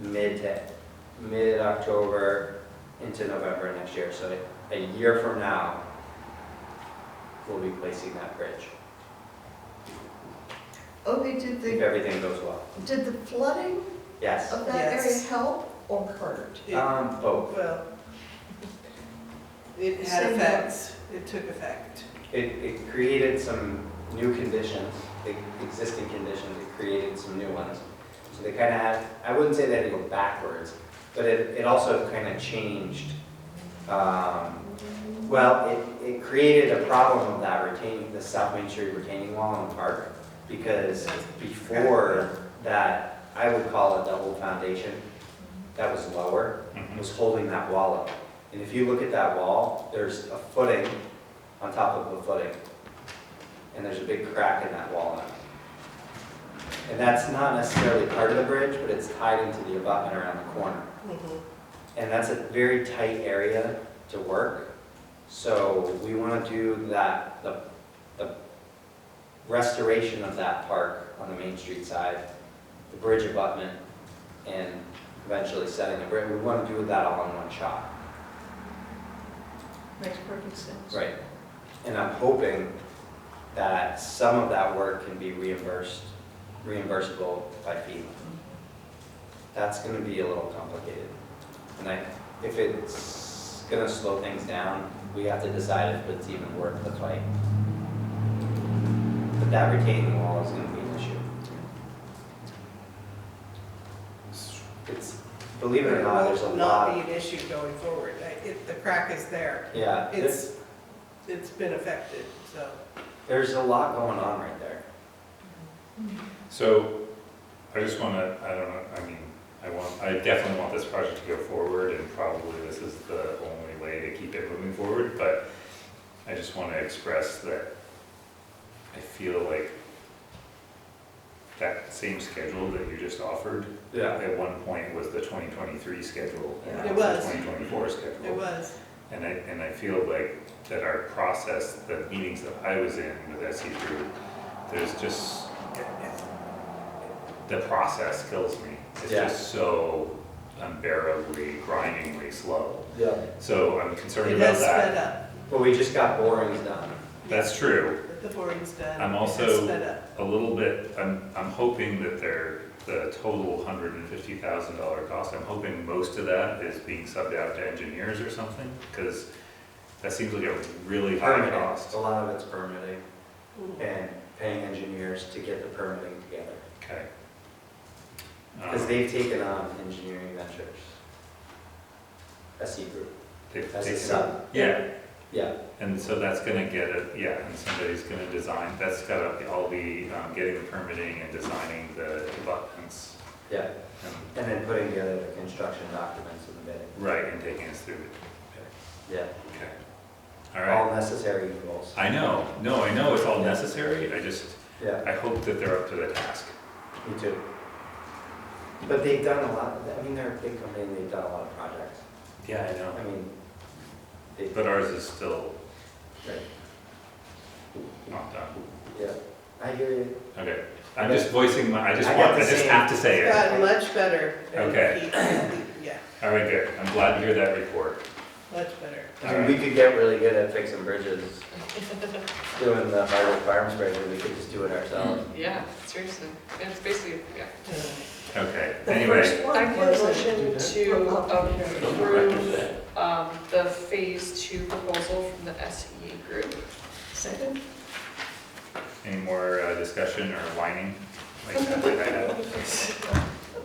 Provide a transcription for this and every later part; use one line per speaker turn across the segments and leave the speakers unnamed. mid to, mid-October into November next year. So a year from now, we'll be placing that bridge,
Okay, did
if
the,
everything goes well.
did the flooding
Yes.
of that area
Yes.
help or hurt?
Um, both.
Well, it had
Same
effects, it took effect.
It, it created some new conditions, the existing conditions, it created some new ones. So they kind of had, I wouldn't say they had to go backwards, but it, it also kind of changed. um, Well, it, it created a problem of that retaining, the South Main Street retaining wall in the park. Because before that, I would call a double foundation that was lower, was holding that wall up. And if you look at that wall, there's a footing on top of the footing. And there's a big crack in that wall now. And that's not necessarily part of the bridge, but it's tied into the abutment around the corner.
Mm-hmm.
And that's a very tight area to work. So we want to do that, the, the restoration of that park on the Main Street side, the bridge abutment, and eventually setting the bridge. We want to do that all in one shot.
Makes perfect sense.
Right. And I'm hoping that some of that work can be reimbursed, reimbursable by FEMA. That's gonna be a little complicated. And I, if it's gonna slow things down, we have to decide if it's even worth the fight. But that retaining wall is gonna be an issue. It's, believe it or not, there's a
It will
lot,
not be an issue going forward, I- it, the crack is there,
yeah, there's,
it's, it's been affected, so.
there's a lot going on right there.
So, I just wanna, I don't know, I mean, I want, I definitely want this project to go forward, and probably this is the only way to keep it moving forward, but I just wanna express that I feel like that same schedule that you just offered, at one point was the twenty twenty-three schedule, and
It
now it's
was.
the twenty twenty-four schedule.
It was,
And I, and I feel like that our process, the meetings that I was in with SE Group, there's just, the process kills me. It's
Yeah.
just so unbearably, grindingly slow.
Yeah.
So I'm concerned
it
about
has sped
that.
up,
But we just got borings done.
That's true.
the boring's done.
I'm
It has
also-
sped up.
A little bit, I'm, I'm hoping that they're, the total hundred and fifty thousand dollar cost, I'm hoping most of that is being subbed out to engineers or something, because that seems like a really high
Permitting,
cost.
a lot of it's permitting
Mhm.
and paying engineers to get the permitting together.
Okay.
Because
Um,
they've taken on engineering ventures. SE group,
they-
as
they-
a sub,
Yeah,
yeah.
and so that's gonna get it, yeah, and somebody's gonna design, that's got to all the, um, getting the permitting and designing the abutments.
Yeah,
and-
and then putting together the construction documents and the bidding.
Right, and taking us through it,
Yeah,
okay. All right,
all necessary evils.
I know, no, I know it's all necessary, I just,
Yeah,
I hope that they're up to the task.
me too. But they've done a lot, I mean, they're a big company, and they've done a lot of projects.
Yeah, I
I
know.
mean, they,
But ours is still
right,
not done,
yeah, I hear you.
okay. I'm just voicing my, I just
I got
want,
the
I just
same-
have to say
It's
it.
gotten Uh, much better. and
Okay.
he- Yeah,
All right, good, I'm glad to hear that report.
much better.
I mean, we could get really good at fixing bridges. Doing the hardwood farms bridge, we could just do it ourselves.
Yeah, seriously. It's basically, yeah.
Okay,
The
anyway,
first one
I can
was-
motion to um,
approve,
approve um, the phase two proposal from the SE group.
Second?
any more uh, discussion or whining? Like, that might happen.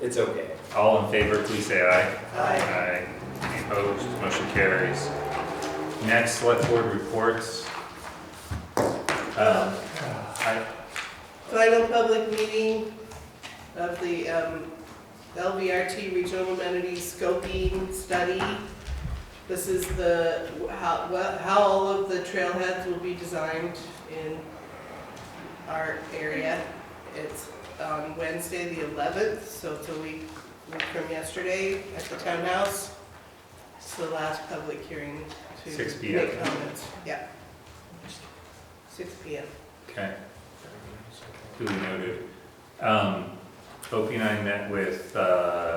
It's okay.
All in favor, please say aye.
Aye.
Aye. Any opposed, motion carries. Next, select board reports. Um, I,
Final public meeting of the um, LVRT Regional Amenities Scoping Study. This is the, how, well, how all of the trailheads will be designed in our area. It's on Wednesday, the 11th, so it's a week week from yesterday at the townhouse. It's the last public hearing to
6 p.m.
make comments. Yeah. 6 PM.
okay. Duly noted. Um, Opie and I met with, uh,